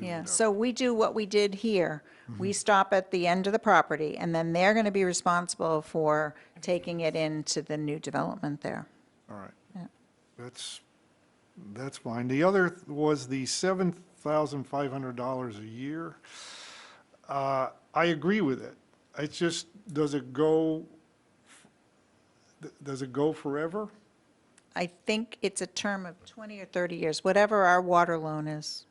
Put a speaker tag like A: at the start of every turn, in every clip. A: Yeah, so we do what we did here.
B: Mm-hmm.
A: We stop at the end of the property, and then they're going to be responsible for taking it into the new development there.
B: All right.
A: Yeah.
B: That's, that's fine. The other was the $7,500 a year. Uh, I agree with it. It's just, does it go, th- does it go forever?
A: I think it's a term of 20 or 30 years, whatever our water loan is.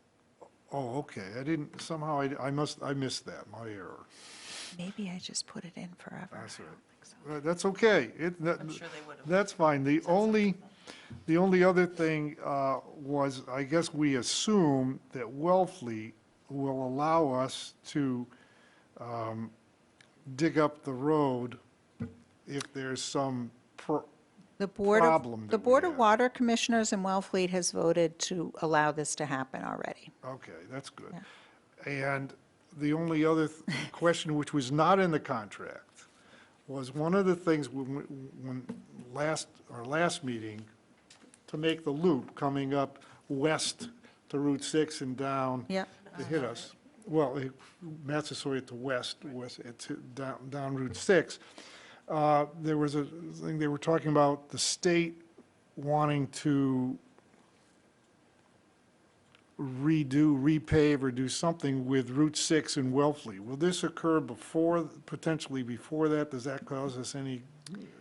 B: Oh, okay, I didn't, somehow I, I must, I missed that, my error.
A: Maybe I just put it in forever.
B: That's all right. Uh, That's okay. It, that, that's fine. The only, the only other thing uh, was, I guess we assume that Wellfleet will allow us to um, dig up the road if there's some, pro-
A: The Board
B: problem
A: of, the
B: that we
A: Board of
B: have.
A: Water Commissioners in Wellfleet has voted to allow this to happen already.
B: okay, that's good. And the only other th- question, which was not in the contract, was one of the things when, we- when last, our last meeting, to make the loop coming up west to Route 6 and down.
A: Yep.
B: To hit us. Well, it- Massasoit to west, west, uh, to, down, down Route 6. Uh, There was a thing, they were talking about the state wanting to redo, repave, or do something with Route 6 and Wellfleet. Will this occur before, potentially before that? Does that cause us any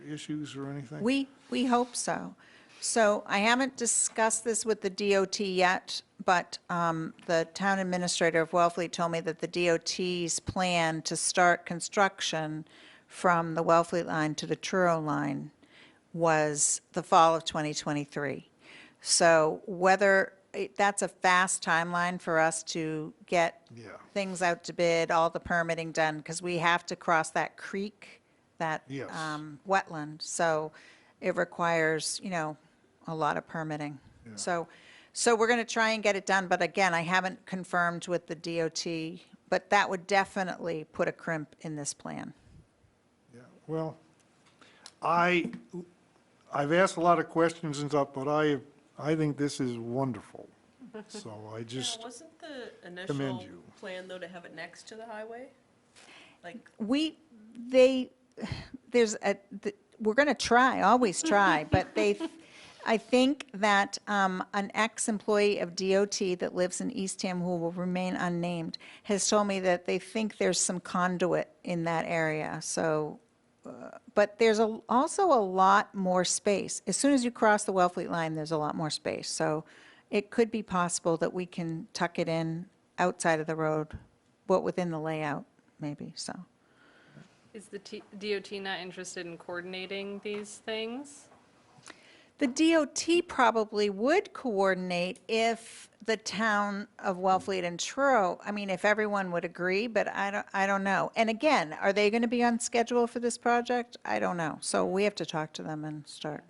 B: issues or anything?
A: We, we hope so. So I haven't discussed this with the DOT yet, but um, the town administrator of Wellfleet told me that the DOT's plan to start construction from the Wellfleet line to the Truro line was the fall of 2023. So whether, it- that's a fast timeline for us to get
B: Yeah.
A: things out to bid, all the permitting done, because we have to cross that creek, that
B: Yes.
A: um, wetland. So it requires, you know, a lot of permitting. So, so we're going to try and get it done, but again, I haven't confirmed with the DOT, but that would definitely put a crimp in this plan.
B: Yeah, Well, I, I've asked a lot of questions and stuff, but I, I think this is wonderful. So I just,
C: Now, wasn't the
B: commend
C: initial
B: you.
C: plan, though, to have it next to the highway? Like,
A: We, they, there's a, th- we're going to try, always try, but they, I think that um, an ex-employee of DOT that lives in Eastham who will remain unnamed has told me that they think there's some conduit in that area, so, uh, but there's a- also a lot more space. As soon as you cross the Wellfleet line, there's a lot more space, so it could be possible that we can tuck it in outside of the road, but within the layout, maybe, so.
D: Is the T- DOT not interested in coordinating these things?
A: The DOT probably would coordinate if the town of Wellfleet and Truro, I mean, if everyone would agree, but I don't, I don't know. And again, are they going to be on schedule for this project? I don't know. So we have to talk to them and start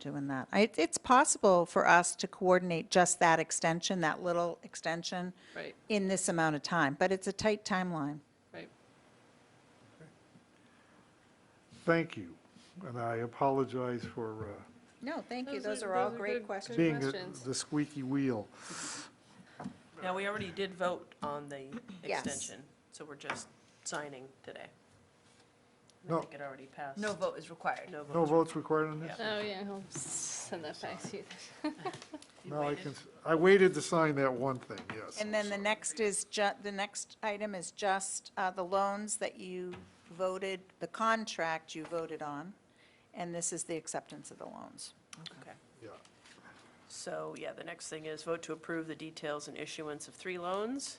A: doing that. I- It's possible for us to coordinate just that extension, that little extension,
D: Right,
A: in this amount of time, but it's a tight timeline.
D: right.
B: thank you. And I apologize for uh,
A: No, thank you.
D: Those
A: Those
D: are-
A: are all
D: those are
A: great
D: good-
A: questions.
B: being the-
D: questions.
B: the squeaky wheel.
C: now, we already did vote on the
A: Yes.
C: extension, so we're just signing today. I
B: No.
C: think it already passed.
E: No vote is required.
C: No
B: No
C: vote.
B: votes required on this?
D: Oh, yeah, I'll send that back to you.
B: No, I can, I waited to sign that one thing, yes.
A: And then the next is ju, the next item is just uh, the loans that you voted, the contract you voted on, and this is the acceptance of the loans.
C: Okay.
B: Yeah.
C: So, yeah, the next thing is vote to approve the details and issuance of three loans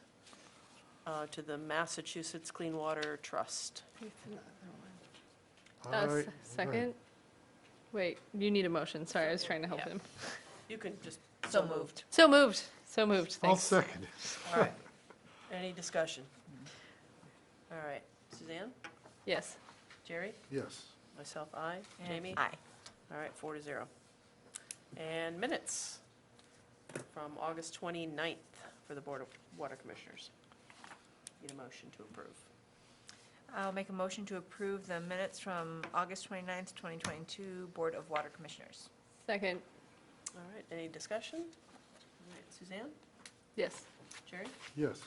C: uh, to the Massachusetts Clean Water Trust.
B: All
D: Uh, s-
B: right, all right.
D: Second? Wait, you need a motion, sorry, I was trying to help
C: Yeah.
D: him.
C: You can just.
E: So moved.
D: So moved, so moved,
B: I'll
D: thanks.
B: second it.
C: All right. Any discussion? All right. Suzanne?
D: Yes,
C: Jerry?
B: Yes.
C: Myself, aye. Jamie?
E: Aye.
C: All right, four to zero. And minutes from August 29th for the Board of Water Commissioners. Need a motion to approve.
E: I'll make a motion to approve the minutes from August 29th, 2022, Board of Water Commissioners.
D: second,
C: All right, any discussion? All right, Suzanne?
D: yes.
C: Jerry?
B: Yes.